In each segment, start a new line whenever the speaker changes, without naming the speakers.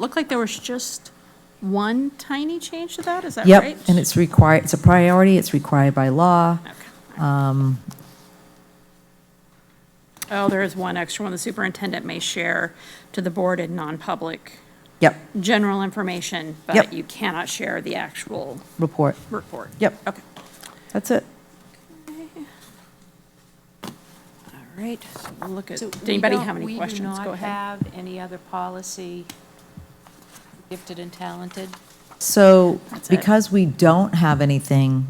looked like there was just one tiny change to that, is that right?
Yep, and it's required, it's a priority, it's required by law.
Okay.
um,
Oh, there is one extra one. The superintendent may share to the board in non-public
Yep,
general information,
Yep.
but you cannot share the actual
report.
report.
Yep.
Okay.
That's it.
All right, so we'll look at,
So
did
we
anybody
don't-
have any questions? Go
We do not
ahead.
have any other policy, gifted and talented?
So
That's it.
because we don't have anything,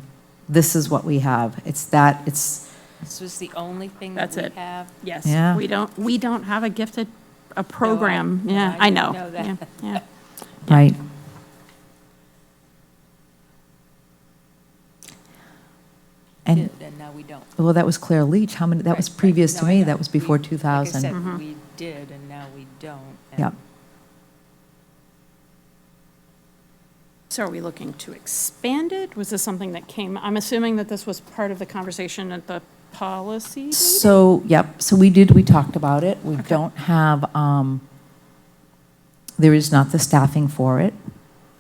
this is what we have. It's that, it's,
This was the only thing that
That's
we
it.
have?
Yeah.
Yes, we don't, we don't have a gifted, a program. Yeah,
I
I know.
know that.
Yeah, yeah.
right. And,
Did, And now we don't.
well, that was Claire Leach. How many, that was
Right, right.
previous to
No, I
me,
know.
that was before
We- like I
2000.
said,
Mm-hmm.
we did, and now we don't. and-
Yep.
So are we looking to expand it? Was this something that came, I'm assuming that this was part of the conversation at the policy meeting?
So, yep, so we did, we talked about it. We don't have, um, there is not the staffing for it.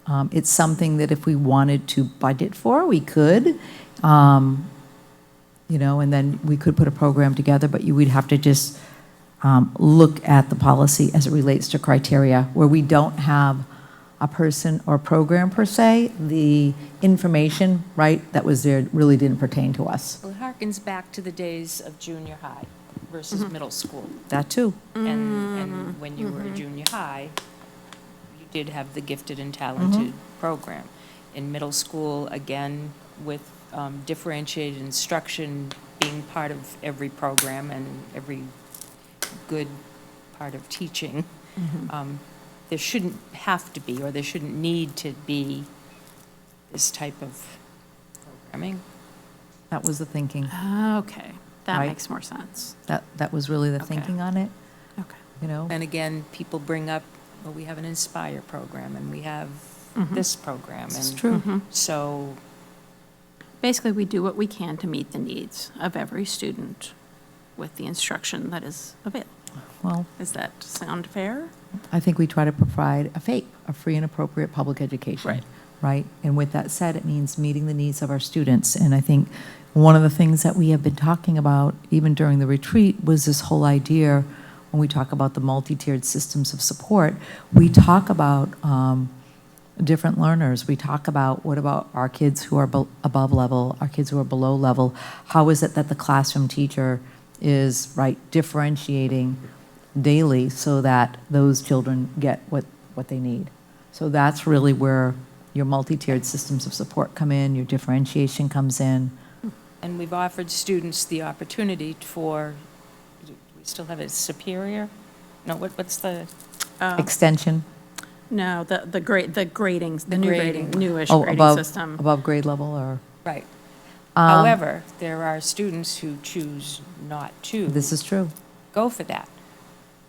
Um, It's something that if we wanted to budget for, we could, um, you know, and then we could put a program together, but you would have to just um, look at the policy as it relates to criteria, where we don't have a person or program per se, the information, right, that was there really didn't pertain to us.
Well, it harkens back to the days of junior high versus
Mm-hmm.
middle school.
That too.
And, and when you were a junior high, you did have the gifted and talented program. In middle school, again, with um, differentiated instruction being part of every program and every good part of teaching, um, there shouldn't have to be, or there shouldn't need to be this type of programming.
That was the thinking.
Oh, Okay, that
Right.
makes more sense.
That, that was really the
Okay.
thinking on it,
Okay.
you know?
And again, people bring up, well, we have an Inspire program, and we have this program.
It's
and
Mm-hmm. true.
So,
Basically, we do what we can to meet the needs of every student with the instruction that is available.
Well,
Does that sound fair?
I think we try to provide a fake, a free and appropriate public education.
Right.
Right? And with that said, it means meeting the needs of our students. And I think one of the things that we have been talking about, even during the retreat, was this whole idea, when we talk about the multi-tiered systems of support, we talk about, um, different learners. We talk about what about our kids who are bel- above level, our kids who are below level? How is it that the classroom teacher is right differentiating daily so that those children get what, what they need? So that's really where your multi-tiered systems of support come in, your differentiation comes in.
and we've offered students the opportunity for, we still have it superior? No, what, what's the,
Oh.
Extension,
No, the, the grade, the grading, the new
grading.
grading, newish
oh,
grading
above,
system.
above grade level or,
right.
Um,
However, there are students who choose not to
this is true,
go for that.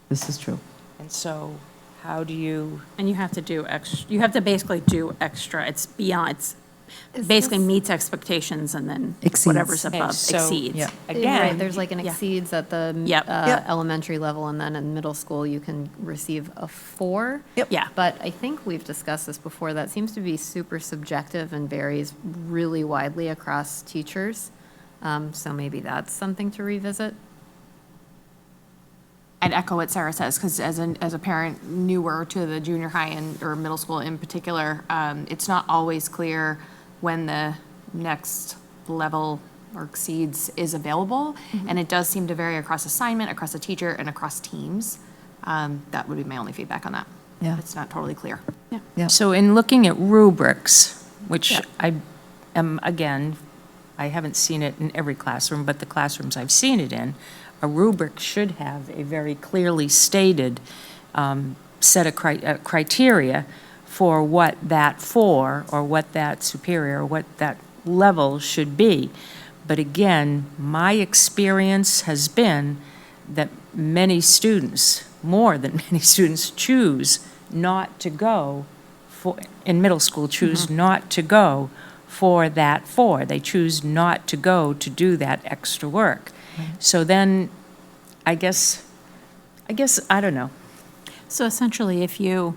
this is true.
And so, how do you,
And you have to do ex, you have to basically do extra. It's beyond, it's basically meets expectations and then whatever's
Exceeds.
Okay,
above
so-
exceeds.
Yeah.
again?
Right, there's like an
Yeah.
exceeds at the m-
Yep.
uh,
Yep.
elementary level, and then in middle school, you can receive a four.
Yep.
Yeah.
But I think we've discussed this before, that seems to be super subjective and varies really widely across teachers. Um, So maybe that's something to revisit.
I'd echo what Sarah says, because as an, as a parent newer to the junior high and, or middle school in particular, um, it's not always clear when the next level or exceeds is available. And it does seem to vary across assignment, across a teacher, and across teams. Um, that would be my only feedback on that.
Yeah.
It's not totally clear.
Yeah.
Yep.
So in looking at rubrics, which
Yeah.
I am, again, I haven't seen it in every classroom, but the classrooms I've seen it in, a rubric should have a very clearly stated um, set of cri- uh, criteria for what that for, or what that superior, or what that level should be. But again, my experience has been that many students, more than many students, choose not to go for, in middle school, choose not to go for that four. They choose not to go to do that extra work. So then, I guess, I guess, I don't know.
So essentially, if you